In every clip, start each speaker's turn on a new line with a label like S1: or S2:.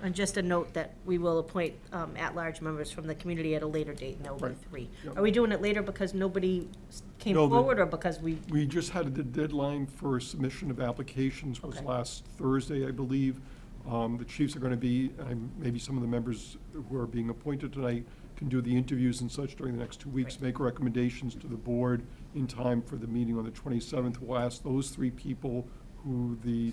S1: And just a note that we will appoint um, at-large members from the community at a later date, and there will be
S2: Right.
S1: three.
S2: Yep.
S1: Are we doing it later because nobody s- came
S2: No, the-
S1: forward, or because we,
S2: We just had the deadline for submission of applications was
S1: Okay.
S2: last Thursday, I believe. Um, The chiefs are going to be, and maybe some of the members who are being appointed tonight can do the interviews and such during the next two weeks,
S1: Right.
S2: make recommendations to the board in time for the meeting on the 27th. We'll ask those three people who the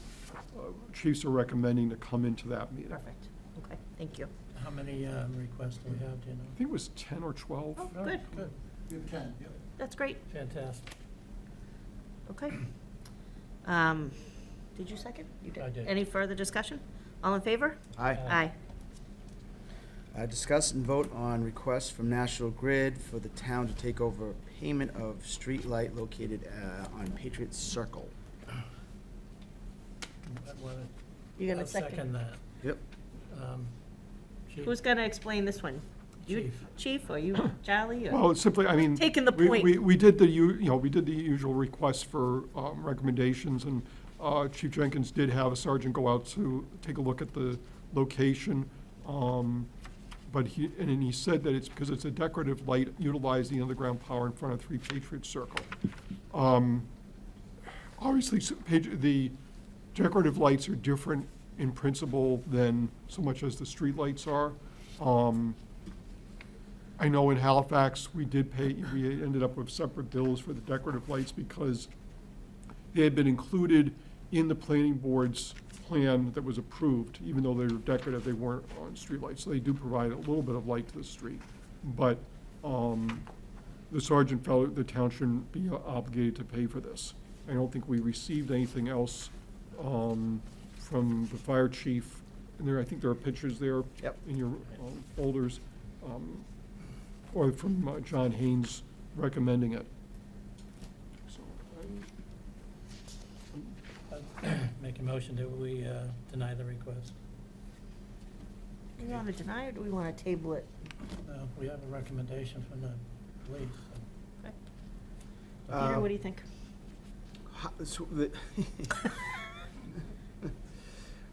S2: uh, chiefs are recommending to come into that meeting. I
S1: perfect, okay, thank you.
S3: How many um, requests do we have, do you know?
S2: think it was 10 or 12.
S1: Oh, good,
S3: Good,
S4: We have ten, yep.
S1: that's great,
S3: fantastic.
S1: okay. Um, Did you second? You
S3: I did.
S1: Any further discussion? All in favor?
S5: Aye.
S3: Aye.
S1: Aye.
S5: Uh, Discuss and vote on request from National Grid for the town to take over payment of street light located uh, on Patriot Circle.
S3: I wanna-
S1: You're gonna
S3: I'll Second
S1: second?
S3: that.
S5: Yep.
S3: Um, Chief,
S1: Who's gonna explain this one? You,
S3: Chief.
S1: Chief, or you, Charlie,
S2: Well,
S1: or?
S2: it's simply, I mean.
S1: Taking the
S2: we-
S1: point.
S2: We, we did the, u- you know, we did the usual requests for um, recommendations, and uh, Chief Jenkins did have a sergeant go out to take a look at the location. um, But he, and then he said that it's because it's a decorative light utilizing underground power in front of Three Patriots Circle. Um, Obviously, s- page- the decorative lights are different in principle than so much as the streetlights are. Um, I know in Halifax, we did pay, we ended up with separate bills for the decorative lights because they had been included in the planning board's plan that was approved, even though they were decorative, they weren't on streetlights. So they do provide a little bit of light to the street. But um, the sergeant felt the town shouldn't be obligated to pay for this. I don't think we received anything else um, from the fire chief. And there, I think there are pictures there
S5: Yep.
S2: in your um, folders, um, or from uh, John Haynes recommending it. So, I-
S3: Make a motion that we uh, deny the request.
S1: Do we wanna deny, or do we wanna table it?
S3: Uh, We have a recommendation from the police. so-
S1: Okay. Peter,
S5: Uh,
S1: what do you think?
S5: Ho- Uh, so the-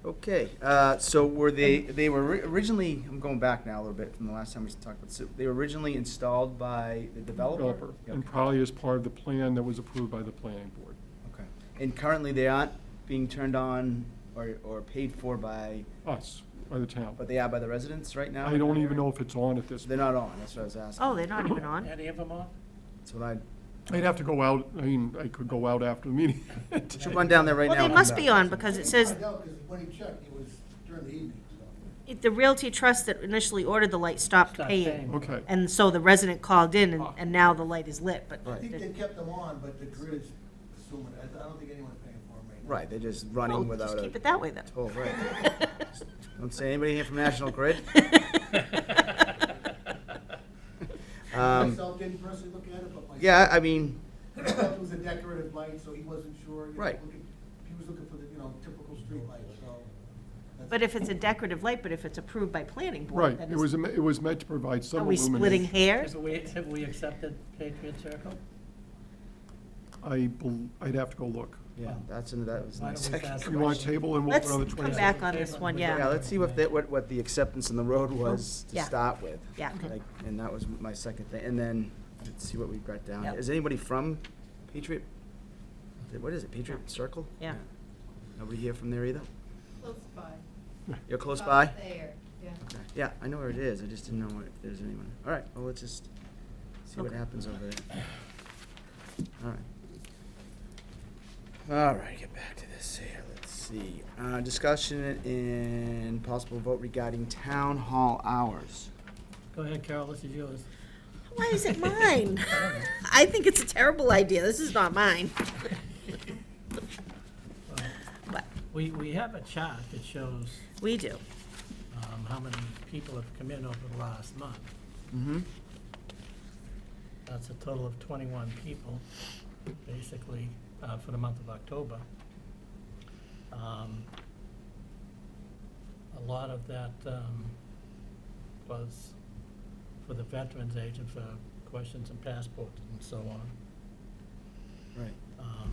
S5: Okay, uh, so were they, they were ri- originally, I'm going back now a little bit from the last time we talked about, so they were originally installed by the developer?
S2: Developer, and probably as part of the plan that was approved by the planning board.
S5: Okay. And currently they aren't being turned on or, or paid for by,
S2: Us, by the town.
S5: but they are by the residents right now?
S2: I don't even know if it's on at this.
S5: They're not on, that's what I was asking.
S1: Oh, they're not even on?
S3: Any of them on?
S5: That's what I,
S2: I'd have to go out, I mean, I could go out after the meeting.
S5: should run down there right now.
S1: Well, they
S5: and come
S1: must be
S5: back.
S1: on, because it says,
S4: I doubt, because when he checked, it was during the evening, so.
S1: it- the Realty Trust that initially ordered the light stopped
S3: Stop
S1: paying.
S2: Okay,
S1: And so the resident called in, and, and now the light is lit, but
S4: I think they
S1: they're-
S4: kept them on, but the grid is assuming, I I don't think anyone's paying for them right now.
S5: Right, they're just
S1: well,
S5: running
S1: just
S5: without
S1: keep
S5: a
S1: it that way then.
S5: toll, right? Don't say anybody here from National Grid.
S4: I
S5: Um,
S4: Myself didn't personally look at it, but my.
S5: Yeah, I mean,
S4: I thought It was a decorative light, so he wasn't sure. you know,
S5: Right.
S4: looking- He was looking for the, you know, typical street light, so. that's-
S1: But if it's a decorative light, but if it's approved by planning board,
S2: right,
S1: then
S2: it was,
S1: it's,
S2: me- it was meant to provide
S1: are
S2: some
S1: we splitting
S2: illumination.
S1: hairs?
S3: Have we, have we accepted Patriot Circle?
S2: I, bel- I'd have to go look.
S5: yeah, that's, an- that was
S3: Why
S5: my
S3: don't we
S5: second.
S3: pass
S2: You want a
S3: question?
S2: table and we'll
S1: Let's
S2: put on the
S1: come
S2: 27th?
S1: back on this one, yeah. Uh-huh.
S5: Yeah, let's see what, the- what, what the acceptance on the road was to
S1: Yeah.
S5: start with.
S1: Yeah. Okay.
S5: Like, And that was my second thing, and then, let's see what we've got down.
S1: Yep.
S5: Is anybody from Patriot? What is it, Patriot Circle?
S1: Yeah.
S5: Nobody here from there either?
S6: Close by.
S5: You're close by?
S6: About There, yeah.
S5: Okay. Yeah, I know where it is, I just didn't know where- if there's anyone. All right, well, let's just see what
S1: Okay.
S5: happens over there. All right. All right, get back to this here, let's see. Uh, discussion and possible vote regarding town hall hours.
S3: Go ahead, Carol, this is yours.
S1: Why is it mine? I think it's a terrible idea, this is not mine. But,
S3: We, we have a chart that shows
S1: we do,
S3: um, how many people have come in over the last month.
S5: Mm-hmm.
S3: That's a total of 21 people, basically, uh, for the month of October. Um, A lot of that um, was for the Veterans Agent for questions and passports and so on.
S5: Right.
S3: Um,